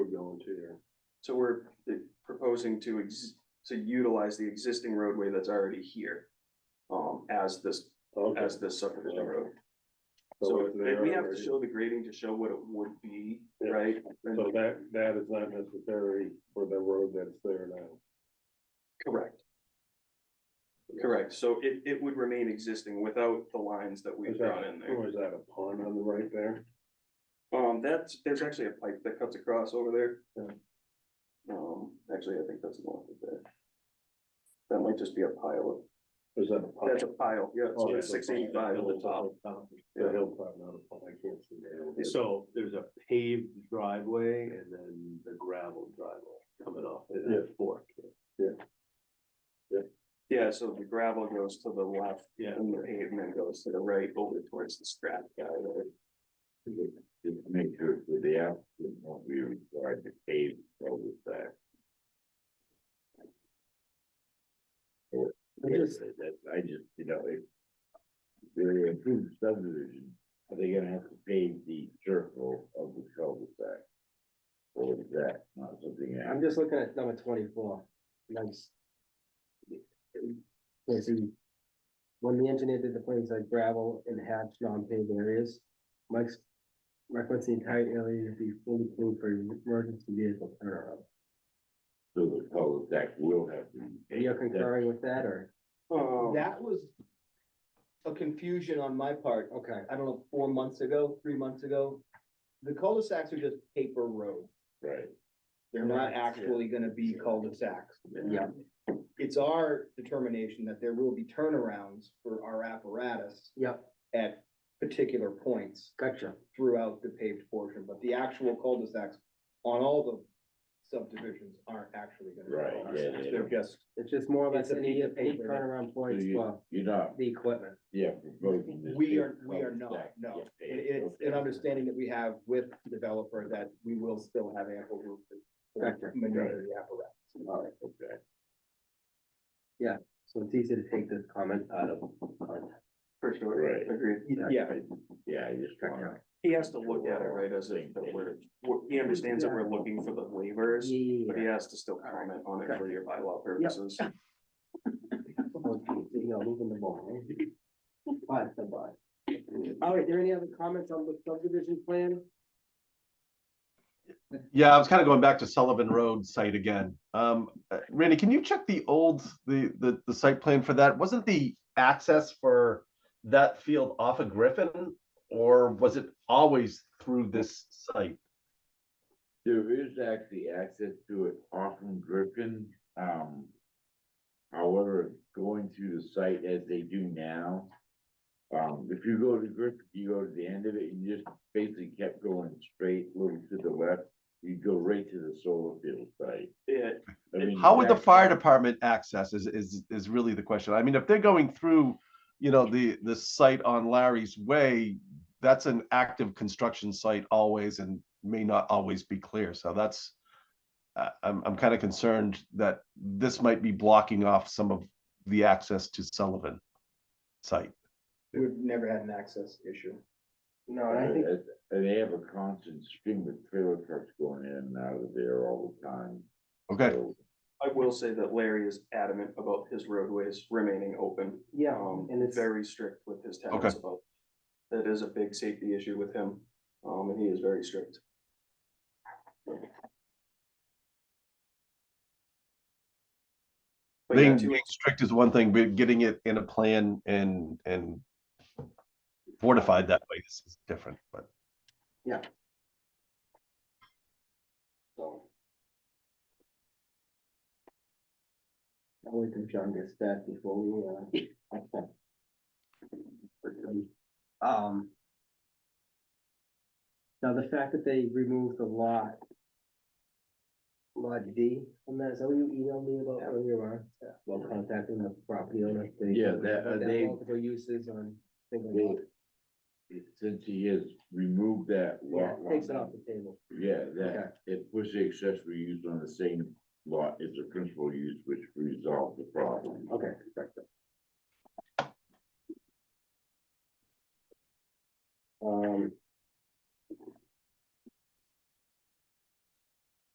two-year. So we're eh, proposing to ex, to utilize the existing roadway that's already here. Um, as this, Okay, as this subdivision road. so So if they if we have already- to show the grading to show what it would be, Yeah. right? then- so that, that is not necessary for the road that's there now. Correct. Correct, so it, it would remain existing without the lines that we've Is drawn that, in there. or is that a pond on the right there? Um, that's, there's actually a pipe that cuts across over there. Yeah. Um, actually, I think that's north of there. That might just be a pile Is that a of, pond? that's a pile, yeah, Oh, so that's a it's six pond. eighty-five at the top. Oh, The hill pond, not a pond, I can't see that. So there's a paved driveway and then the gravel driveway coming off at Yeah. that fork. Yeah, so the gravel goes to the left Yeah. and the pavement goes to the right over towards the scrap guy there. Just to make sure that the applicant won't be required to pave over that. Or, I just- that, I just, you know, if. They're improved subdivision, are they gonna have to pave the circle of the cul-de-sac? Or is that not something? that- I'm just looking at number twenty-four, nice. Let's see. When the engineer did the plans like gravel and hatch non-paved areas, Mike's requests the entire area to be fully clean for emergency vehicle turnaround. So the cul-de-sac will have to. be Are you paved? concurring with that or? Um, That was a confusion on my part, okay, I don't know, four months ago, three months ago. The cul-de-sacs are just paper roads. Right, They're not actually gonna be cul-de-sacs. Yeah. It's our determination that there will be turnarounds for our apparatus Yep, at particular points gotcha. throughout the paved portion, but the actual cul-de-sacs on all the subdivisions aren't actually gonna Right, be yeah, cul-de-sacs. yeah, They're yeah. just, It's just more or It's less a any piece of any paper. turnaround so points you, for you're not, the equipment. yeah, proposing this. uh, we big are, we are not, cul-de-sac no. get It- paved. It's Okay. an understanding that we have with the developer that we will still have ample room Gotcha. to maneuver the apparatus. All right, Okay. so it's easy to take this comment out of context. for sure, Right. agreed. Yeah, Yeah, I just. Check it wanna- out. He has to look at it, right, as if that we're, we're- he understands that we're looking for the waivers, but he has to still comment on it for your bylaw purposes. Okay, you know, moving the ball. eh? Bye, bye. All right, there any other comments on the subdivision plan? Yeah, I was kind of going back to Sullivan Road site again. Um, uh, Randy, can you check the old, the, the, the site plan for that? Wasn't the access for that field off of Griffin? Or was it always through this site? There is actually access to it off from Griffin, um. However, going through the site as they do now. Um, if you go to Griffin, you go to the end of it, you just basically kept going straight, little to the left, you go right to the solar field site. Yeah, I mean, How would the that's- fire department access is, is, is really the question. I mean, if they're going through, you know, the, the site on Larry's Way, that's an active construction site always and may not always be clear. So that's, uh, I'm, I'm kind of concerned that this might be blocking off some of the access to Sullivan site. we've never had an access issue. No, and I think, And they have a constant stream of trailer trucks going in and out of there all the time. Okay, So, I will say that Larry is adamant about his roadways remaining open, yeah, um, and it's, very strict with his tenants about. That is a big safety issue with him, um, and he is very strict. But yeah, being two- being strict is one thing, but getting it in a plan and, and fortified that way is is different, but. so. I'll wait till John gets that before we, uh. Um. Now, the fact that they removed the lot. Lot D, from that, is that what you emailed me about earlier on? Well, contacting the property owner. they- Yeah, that- uh, that they- Multiple uses on. single They- lot. Since he has removed that Yeah, lot. takes it line, off the table. Yeah, that, it puts the accessory use on the same lot as the principal use, which resolves the problem. Okay, correct.